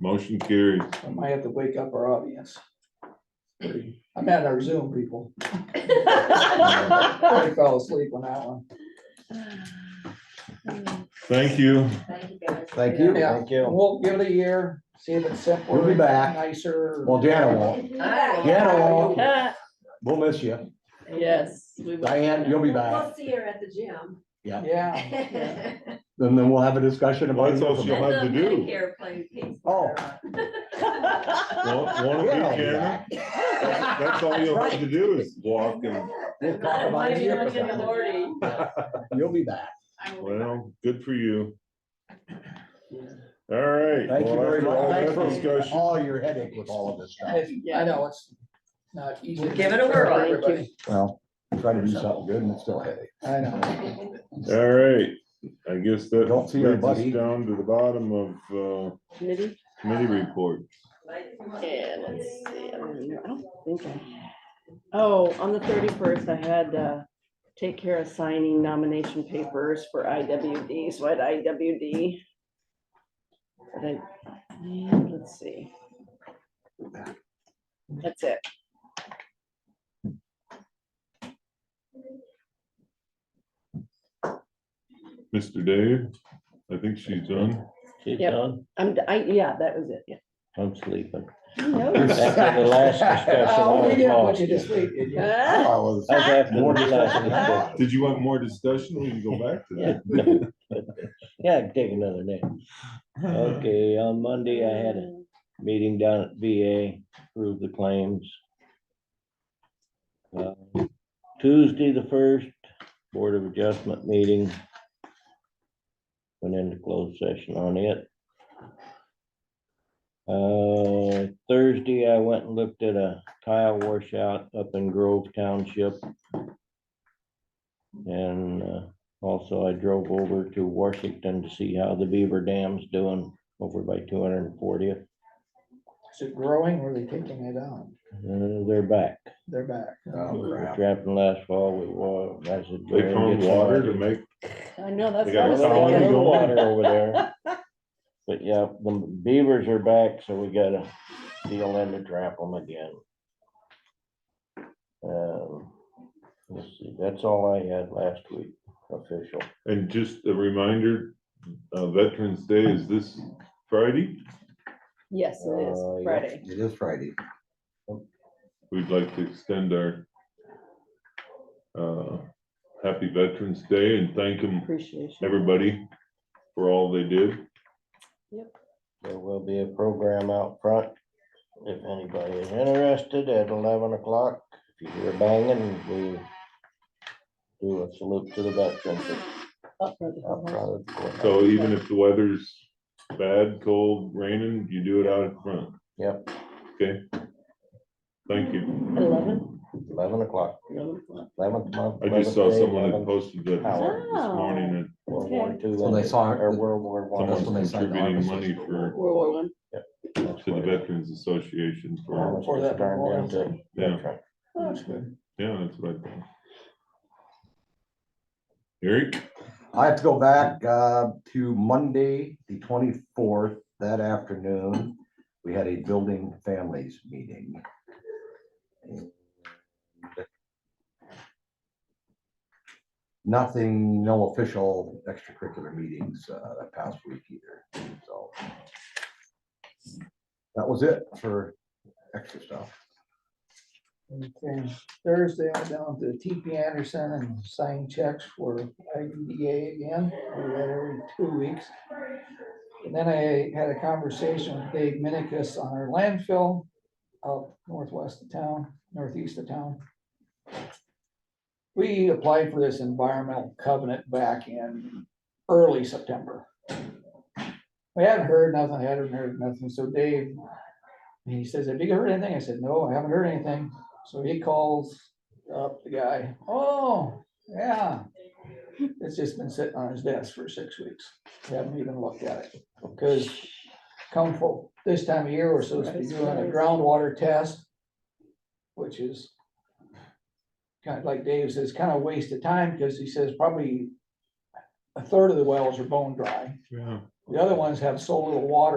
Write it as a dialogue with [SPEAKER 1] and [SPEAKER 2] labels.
[SPEAKER 1] Motion carries.
[SPEAKER 2] I might have to wake up our audience. I'm at our Zoom people. I fell asleep on that one.
[SPEAKER 1] Thank you.
[SPEAKER 3] Thank you guys.
[SPEAKER 4] Thank you,
[SPEAKER 2] Yeah.
[SPEAKER 4] thank you.
[SPEAKER 2] We'll give it a year, see if it's simpler.
[SPEAKER 4] We'll be back.
[SPEAKER 2] Nicer.
[SPEAKER 4] Well, Deanna won't.
[SPEAKER 3] Yeah.
[SPEAKER 4] Deanna won't.
[SPEAKER 5] Ah,
[SPEAKER 4] We'll miss you.
[SPEAKER 5] Yes. we will.
[SPEAKER 4] Diane, you'll be back.
[SPEAKER 3] We'll see her at the gym.
[SPEAKER 2] Yeah,
[SPEAKER 4] And then we'll have a discussion about.
[SPEAKER 1] Well, that's also-
[SPEAKER 4] it.
[SPEAKER 1] have to do.
[SPEAKER 3] Medicare playing
[SPEAKER 4] Oh.
[SPEAKER 3] baseball.
[SPEAKER 1] One one of you,
[SPEAKER 4] Yeah, I'll be
[SPEAKER 1] Janet.
[SPEAKER 4] back.
[SPEAKER 1] That's that's all you'll have to do is walk and,
[SPEAKER 4] We'll talk about
[SPEAKER 5] Might
[SPEAKER 4] it
[SPEAKER 5] be
[SPEAKER 4] here
[SPEAKER 5] looking at
[SPEAKER 4] for
[SPEAKER 5] Lori.
[SPEAKER 4] that. You'll be back.
[SPEAKER 1] well, good for you. All right.
[SPEAKER 4] Thank you
[SPEAKER 1] well,
[SPEAKER 4] very
[SPEAKER 1] after
[SPEAKER 4] much.
[SPEAKER 1] all
[SPEAKER 4] Thanks
[SPEAKER 1] that
[SPEAKER 4] for
[SPEAKER 1] discussion,
[SPEAKER 4] all your headache with all of this stuff.
[SPEAKER 2] If- I know it's not easy.
[SPEAKER 5] We'll give it a whirl.
[SPEAKER 2] for everybody.
[SPEAKER 4] Well, try to do something good and it's still a headache.
[SPEAKER 2] I know.
[SPEAKER 1] All right. I guess that
[SPEAKER 4] Don't see our
[SPEAKER 1] leads us
[SPEAKER 4] buddy.
[SPEAKER 1] down to the bottom of uh,
[SPEAKER 5] Committee?
[SPEAKER 1] committee report.
[SPEAKER 5] Yeah, let's see. I don't remember. I don't think I- Oh, on the thirty-first, I had, uh, take care of signing nomination papers for IWD, so I had IWD. But I- and let's see. That's it.
[SPEAKER 1] Mr. Dave, I think she's done.
[SPEAKER 6] She's
[SPEAKER 5] Yep.
[SPEAKER 6] done.
[SPEAKER 5] I'm, I, yeah, that was it, yeah.
[SPEAKER 6] I'm sleeping.
[SPEAKER 5] No.
[SPEAKER 6] After the last discussion.
[SPEAKER 2] Oh, we
[SPEAKER 6] I
[SPEAKER 2] didn't
[SPEAKER 6] was
[SPEAKER 2] want you
[SPEAKER 6] lost.
[SPEAKER 2] to sleep, did you?
[SPEAKER 4] I
[SPEAKER 5] Ah,
[SPEAKER 4] was-
[SPEAKER 6] That's after the
[SPEAKER 4] More
[SPEAKER 6] last
[SPEAKER 4] discussion.
[SPEAKER 6] discussion.
[SPEAKER 1] Did you want more discussion? We can go back to
[SPEAKER 6] Yeah,
[SPEAKER 1] that.
[SPEAKER 6] no. Yeah, I can take another name. Okay, on Monday I had a meeting down at VA, approve the claims. Uh, Tuesday, the first, Board of Adjustment meeting. Went into closed session on it. Uh, Thursday, I went and looked at a tile washout up in Grove Township. And uh, also I drove over to Washington to see how the Beaver Dam's doing over by two hundred and fortieth.
[SPEAKER 2] Is it growing or are they taking it out?
[SPEAKER 6] Uh, they're back.
[SPEAKER 2] They're back.
[SPEAKER 4] Oh,
[SPEAKER 6] We were
[SPEAKER 4] crap.
[SPEAKER 6] trapping last fall, we wa- I said,
[SPEAKER 1] They
[SPEAKER 6] "Gary,
[SPEAKER 1] found
[SPEAKER 6] get
[SPEAKER 1] water to
[SPEAKER 6] somebody."
[SPEAKER 1] make,
[SPEAKER 5] I know, that's.
[SPEAKER 1] They
[SPEAKER 5] what I
[SPEAKER 1] got
[SPEAKER 5] was
[SPEAKER 1] a
[SPEAKER 6] Well,
[SPEAKER 1] colony
[SPEAKER 6] there's
[SPEAKER 5] thinking.
[SPEAKER 6] no
[SPEAKER 1] going.
[SPEAKER 6] Water over there. But yeah, the beavers are back, so we gotta deal in to trap them again. Um, Let's see, that's all I had last week, official.
[SPEAKER 1] and just a reminder, uh, Veterans Day is this Friday.
[SPEAKER 5] Yes, it is,
[SPEAKER 6] Uh, yeah.
[SPEAKER 5] Friday.
[SPEAKER 4] It is Friday.
[SPEAKER 1] We'd like to extend our uh, happy Veterans Day and thank them,
[SPEAKER 5] Appreciation.
[SPEAKER 1] everybody, for all they did.
[SPEAKER 6] There will be a program out front. If anybody is interested at eleven o'clock, if you hear banging, we do a salute to the veterans
[SPEAKER 5] Up front of the
[SPEAKER 6] out
[SPEAKER 5] house.
[SPEAKER 6] front of the courthouse.
[SPEAKER 1] So even if the weather's bad, cold, raining, you do it out in front.
[SPEAKER 6] Yep.
[SPEAKER 1] Okay. Thank you.
[SPEAKER 5] Eleven?
[SPEAKER 6] Eleven o'clock,
[SPEAKER 5] Eleven o'clock.
[SPEAKER 6] eleventh month.
[SPEAKER 1] I just
[SPEAKER 6] 11th
[SPEAKER 1] saw
[SPEAKER 6] day,
[SPEAKER 1] someone that
[SPEAKER 6] 11th
[SPEAKER 1] posted that this
[SPEAKER 5] Wow.
[SPEAKER 1] morning and
[SPEAKER 6] World War Two.
[SPEAKER 4] So they
[SPEAKER 6] ended,
[SPEAKER 4] saw it,
[SPEAKER 6] Or
[SPEAKER 4] the-
[SPEAKER 6] World War One.
[SPEAKER 4] That's when they
[SPEAKER 1] someone's
[SPEAKER 4] signed the
[SPEAKER 1] contributing money
[SPEAKER 4] officers.
[SPEAKER 1] for,
[SPEAKER 5] World War One.
[SPEAKER 6] That's
[SPEAKER 1] to the
[SPEAKER 6] what-
[SPEAKER 1] Veterans Association for,
[SPEAKER 6] that's
[SPEAKER 2] For
[SPEAKER 6] what
[SPEAKER 2] that
[SPEAKER 6] it turned
[SPEAKER 2] memorial
[SPEAKER 6] into.
[SPEAKER 2] thing.
[SPEAKER 1] Yeah.
[SPEAKER 6] Veteran.
[SPEAKER 2] That's good.
[SPEAKER 1] yeah, that's what I thought. Eric,
[SPEAKER 4] I have to go back uh, to Monday, the twenty-fourth, that afternoon. We had a building families meeting. Nothing, no official extracurricular meetings uh, that past week either, so. uh, That was it for extra stuff.
[SPEAKER 2] Okay. Thursday, I went down to TP Anderson and signed checks for IDDA again. We do that every two weeks. And then I had a conversation with Dave Minicus on our landfill out northwest of town, northeast of town. We applied for this environmental covenant back in early September. We hadn't heard nothing, hadn't heard nothing, so Dave, he says, have you heard anything? I said, no, I haven't heard anything. So he calls up the guy, oh, yeah. It's just been sitting on his desk for six weeks. We haven't even looked at it, because come for, this time of year, we're supposed to be doing a groundwater test. Which is kind of like Dave says, kind of waste of time, because he says probably a third of the wells are bone dry.
[SPEAKER 1] yeah.
[SPEAKER 2] The other ones have so little water